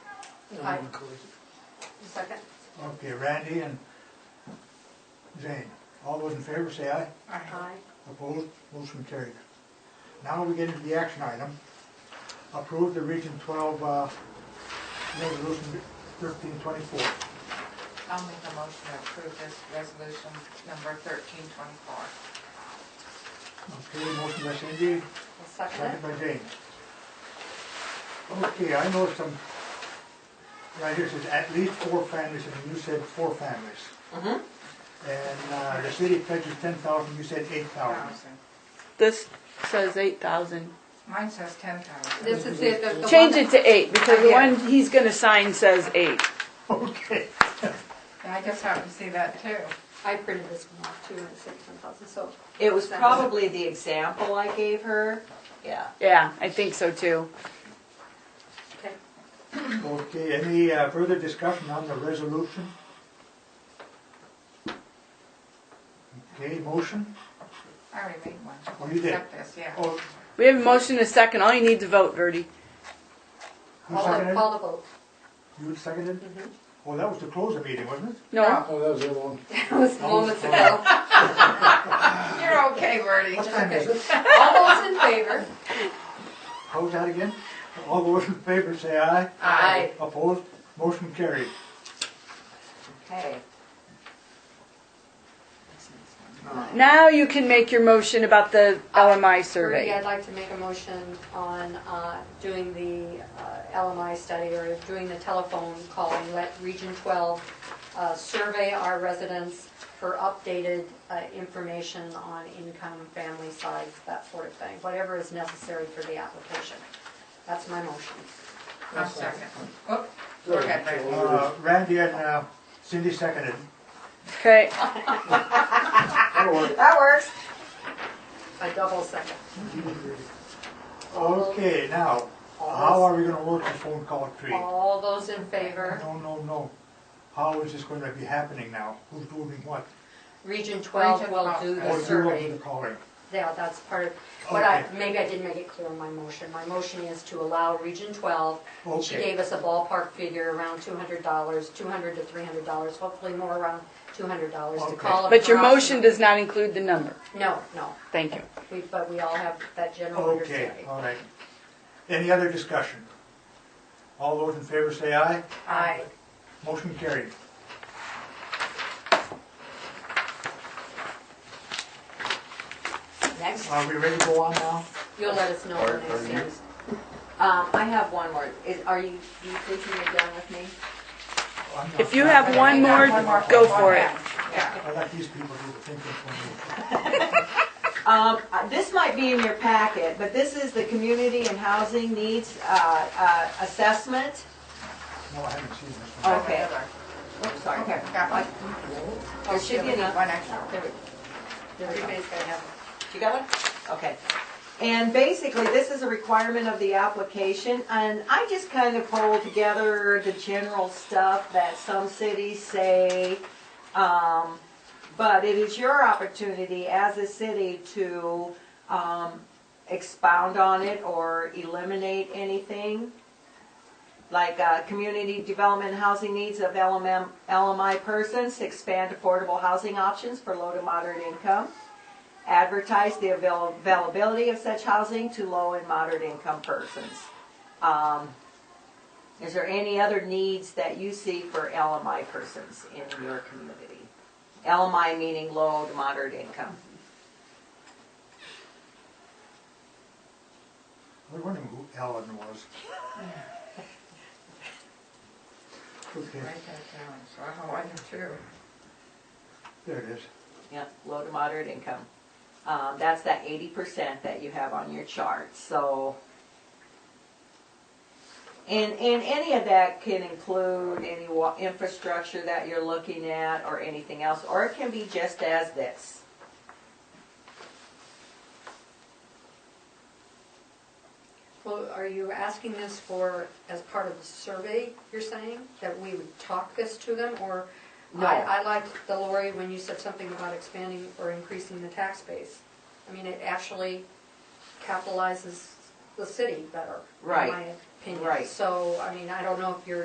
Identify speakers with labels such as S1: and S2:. S1: Aye.
S2: Second?
S3: Okay, Randy and Jane. All those in favor say aye.
S2: Aye.
S3: Opposed? Motion carried. Now we get into the action item. Approve the Region 12, uh, Resolution 1324.
S4: I'll make a motion to approve this resolution number thirteen twenty-four.
S3: Okay, motion by Cindy,
S2: I'll Second
S3: second
S2: it?
S3: by Jane. Okay, I know some, right here it says at least four families, and you said four families. And uh, the city pledges 10,000, you said 8,000.
S4: Thousand.
S5: This says eight thousand.
S4: Mine says ten thousand.
S2: This is it, the- the one.
S5: Change it to eight, because the
S2: Yeah.
S5: one he's gonna sign says eight.
S3: Okay.
S4: I just happened to see that too.
S2: I printed this one off too, and it said ten thousand, so.
S6: It was probably the example I gave her, yeah.
S5: Yeah, I think so too.
S2: Okay.
S3: Okay, any uh, further discussion on the resolution? Okay, motion?
S4: I already made one.
S3: Oh, you did?
S4: Accept this, yeah.
S3: Oh,
S5: We have a motion and a second, all you need to vote, Verdi.
S3: who
S2: Call the,
S3: seconded?
S2: call the vote.
S3: You seconded? Well, that was to close the meeting, wasn't it?
S5: No,
S1: Oh, that was the other one.
S2: That was moments ago.
S4: You're okay, Bertie.
S3: What time is it?
S2: All those in favor?
S3: How's that again? All those in favor say aye.
S2: Aye.
S3: Opposed? Motion carried.
S6: Okay.
S5: now you can make your motion about the LMI
S2: Rudy, I'd
S5: survey.
S2: like to make a motion on uh, doing the uh, LMI study or doing the telephone calling, let Region 12 uh, survey our residents for updated uh, information on income, family size, that sort of thing, whatever is necessary for the application. That's my motion.
S4: One second. Oop, go ahead, Bertie.
S3: Uh, Randy and uh, Cindy seconded.
S5: Okay,
S6: That works.
S2: A double second. All those-
S3: Okay, now, how are we gonna work the phone call tree?
S2: All those in favor?
S3: No, no, no. How is this gonna be happening now? Who's doing what?
S2: Region 12
S4: Region
S2: will
S4: 12.
S2: do the
S3: Or
S2: survey.
S3: you're the calling?
S2: Yeah, that's part of, what I,
S3: Okay.
S2: maybe I didn't make it clear in my motion. My motion is to allow Region 12, she
S3: Okay.
S2: gave us a ballpark figure around $200, $200 to $300, hopefully more around $200 to
S3: Okay.
S2: call. a
S5: but your
S2: person.
S5: motion does not include the number.
S2: No, no,
S5: Thank you.
S2: We- but we all have that general
S3: Okay,
S2: understanding.
S3: all right. Any other discussion? All those in favor say aye.
S4: Aye.
S3: Motion carried.
S6: Next.
S3: Are we ready to go on now?
S2: You'll let us know
S1: Are-
S2: when
S1: are
S2: that
S1: you-
S2: seems.
S6: Um, I have one more. Is, are you, do you think you're done with me?
S3: I'm not-
S5: If you have one more, go for it.
S4: Yeah.
S3: I like these people who think it's for me.
S6: Um, uh, this might be in your packet, but this is the community and housing needs, uh, uh, assessment.
S3: No, I haven't seen this one.
S6: Okay. Oops, sorry.
S4: Okay, got one.
S6: There should be enough.
S4: One extra.
S6: There we go. There we go.
S2: Everybody's gonna have,
S6: You got one? Okay. And basically, this is a requirement of the application, and I just kind of pulled together the general stuff that some cities say. Um, but it is your opportunity as a city to, um, expound on it or eliminate anything. Like, uh, community development housing needs of LMM, LMI persons, expand affordable housing options for low to moderate income advertise the avail- availability of such housing to low and moderate income persons. Um, Is there any other needs that you see for LMI persons in your community? LMI meaning low to moderate income.
S3: I was wondering who Ellen was. Okay,
S4: Write that down, so I know I do too.
S3: there it is.
S6: Yeah, low to moderate income. Um, That's that eighty percent that you have on your chart, so. And, and any of that can include any wa- infrastructure that you're looking at or anything else, or it can be just as this.
S2: well, are you asking this for, as part of the survey, you're saying? That we would talk this to them, or?
S6: No.
S2: I, I liked the Lori when you said something about expanding or increasing the tax base. I mean, it actually capitalizes the city better, in
S6: Right.
S2: my opinion.
S6: Right.
S2: So, I mean, I don't know if you're